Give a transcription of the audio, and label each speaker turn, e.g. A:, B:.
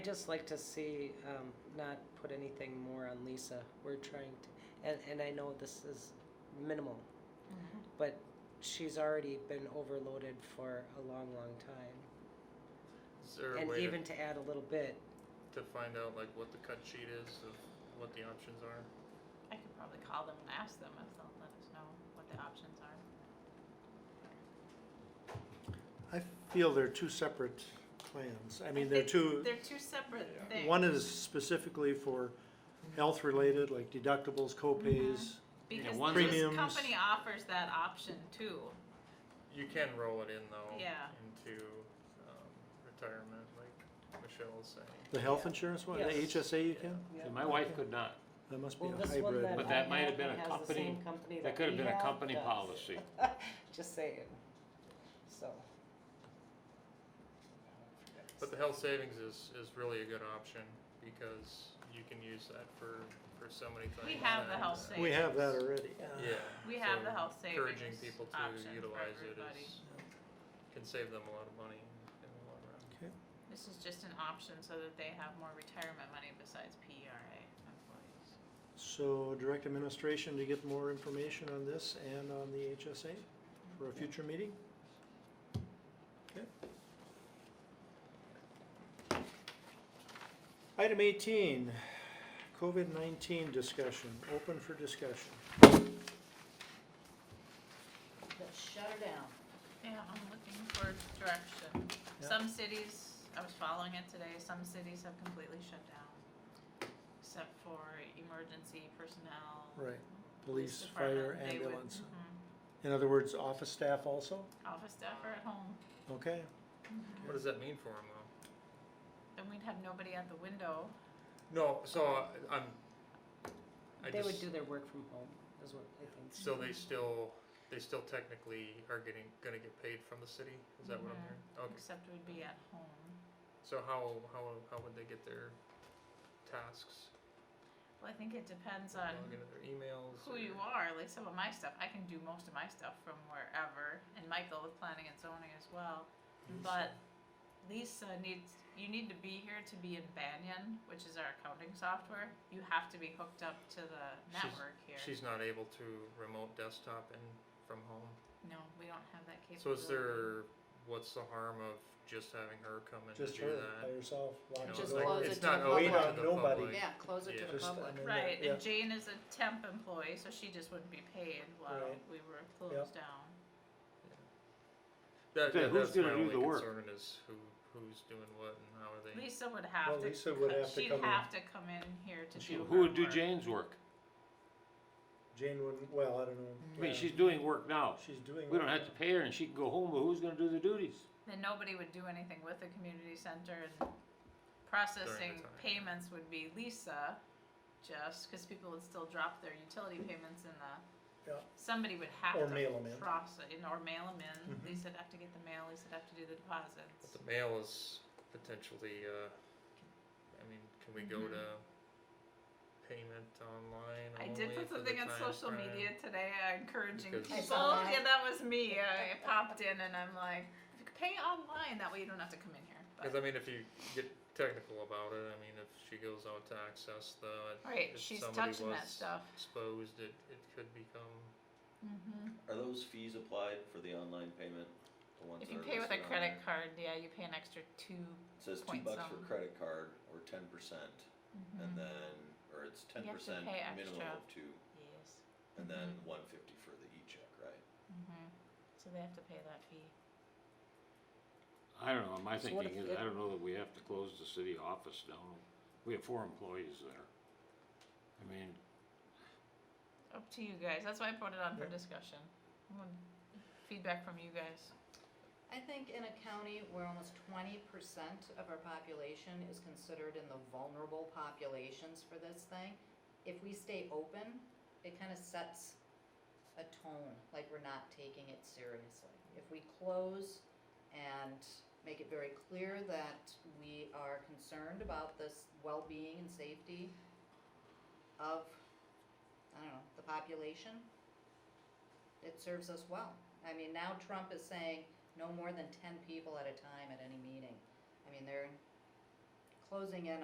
A: I'd just like to see, um, not put anything more on Lisa. We're trying to, and, and I know this is minimal,
B: Mm-hmm.
A: but she's already been overloaded for a long, long time.
C: Is there a
A: And
C: way to,
A: even to add a little bit,
C: to find out like what the cut sheet is of what the options are?
B: I could probably call them and ask them if they'll let us know what the options are.
D: I feel they're two separate plans. I mean, they're
B: think
D: two,
B: They're two separate things.
D: one is specifically for health-related, like deductibles, co-pays.
B: Because
E: one's
B: this
D: premiums.
B: company offers that option too.
C: You can roll it in though
B: Yeah.
C: into um, retirement, like Michelle was saying.
D: The health insurance one, the
A: Yes.
D: HSA you can?
A: yeah.
E: See, my wife could not.
D: That must be
A: Well,
D: a
A: this one that
D: hybrid.
E: But that
A: I
E: might have been a
A: has the
E: company-
A: same company
E: That could have
A: we
E: been a
A: have
E: company
A: does.
E: policy.
A: Just saying, so.
C: But the health savings is, is really a good option because you can use that for, for so many things.
B: We have the
C: and,
B: health
C: uh,
B: savings.
D: We have that already.
C: Yeah.
B: We have
C: so
B: the health savings
C: Encouraging people to
B: option for
C: utilize it
B: everybody.
C: is, can save them a lot of money in the long run.
D: Okay.
B: This is just an option so that they have more retirement money besides PERA employees.
D: So direct administration to get more information on this and on the HSA for a future meeting? Okay. Item eighteen, COVID nineteen discussion, open for discussion.
F: Let's shut her down.
B: Yeah, I'm looking for direction.
D: Yeah.
B: Some cities, I was following it today, some cities have completely shut down. Except for emergency personnel.
D: Right, police, fire,
B: department, they would-
D: ambulance.
B: mhm.
D: In other words, office staff also?
B: Office staff are at home,
D: Okay,
C: What does that mean for them though?
B: then we'd have nobody at the window.
C: No, so I- I'm, I
A: They would
C: just,
A: do their work from home, is what I think.
C: so they still, they still technically are getting, gonna get paid from the city? Is that what I'm
B: Mhm.
C: hearing? Okay,
B: Except we'd be at home.
C: so how, how, how would they get their tasks?
B: Well, I think it depends
C: Log
B: on
C: into their emails?
B: who you
C: or-
B: are. Like some of my stuff, I can do most of my stuff from wherever, and Michael with planning and zoning as well. But Lisa needs you need to be here to be in Banyan, which is our accounting software. You have to be hooked up to the
C: She's-
B: network here.
C: She's not able to remote desktop and from home?
B: no, we don't have that
C: So
B: capability.
C: is there, what's the harm of just having her come in and
D: just
C: do
D: her by
C: that?
D: herself,
C: You know,
D: locked
F: Just
C: like,
F: close
C: it's
F: it to
C: not
F: the
C: open
F: public.
C: to
D: Without
C: the
D: nobody.
C: public.
F: Yeah, close it to the
D: Just,
C: uh,
D: I
F: public.
D: mean,
B: Right,
D: uh, yeah.
B: and Jane is a temp employee, so she just wouldn't be paid while
D: Right.
B: we were closed down.
C: That,
E: Then
C: that-
E: who's
C: that's my
E: gonna do
C: only
E: the work?
C: concern is who, who's doing what and how are they?
B: Lisa would have
D: Well,
B: to.
D: Lisa would
B: co-
D: have to
B: she'd
D: come in.
B: have to come in here to do.
E: Who
B: her
E: would do
B: work.
E: Jane's work?
D: Jane wouldn't, well, I don't know.
E: I mean,
D: Yeah.
E: she's doing work now.
D: She's doing.
E: We don't have to pay her and she can go home, but who's gonna do the duties?
B: Then nobody would do anything with the community center and processing
C: time.
B: payments would be Lisa, just, cause people would still drop their utility payments in the.
D: Yeah.
B: Somebody would have
D: Or
B: to
D: mail 'em in.
B: process, in- or mail them in,
D: Mhm.
B: Lisa'd have to get the mail, Lisa'd have to do the
C: But
B: deposits.
C: the mail is potentially, uh, I mean, can we go
B: Mhm.
C: to payment online
B: I
C: only
B: did put
C: for the
B: something on
C: time
B: social
C: frame?
B: media today, uh, encouraging
C: Because-
B: people,
C: I
F: saw that.
B: yeah, that was me, I I popped in and I'm like, pay online, that way you don't have to come in here,
C: Cause
B: but,
C: I mean, if you get technical about it, I mean, if she goes out to access the,
B: right,
C: if
B: she's
C: somebody
B: touching that
C: was
B: stuff.
C: exposed, it, it could become,
B: Mm-hmm.
G: Are those fees applied for the online payment? The ones
B: If
G: that
B: you
G: are
B: pay with a
G: listed on
B: credit
G: there?
B: card, yeah, you pay an extra 2
G: It says two
B: points
G: bucks for
B: on.
G: credit card or ten percent and
B: Mm-hmm.
G: then, or it's
B: You
G: ten
B: have to
G: percent
B: pay
G: minimum
B: extra.
G: of two
B: Yes.
G: and then
B: Mhm.
G: one fifty for the e-check, right?
B: Mm-hmm. So they have to pay that fee.
E: I don't know, my
A: So what
E: thinking
A: if
E: is,
A: it-
E: I don't know that we have to close the city office down. We have four employees there. I mean,
B: Up to you guys. That's why I put it on for discussion. I want Feedback from you guys.
F: I think in a county where almost twenty percent of our population is considered in the vulnerable populations for this thing, if we stay open, it kind of sets a tone, like we're not taking it seriously. If we close and make it very clear that we are concerned about this well-being and safety of, I don't know, the population, it serves us well. I mean, now Trump is saying no more than ten people at a time at any meeting. I mean, they're closing in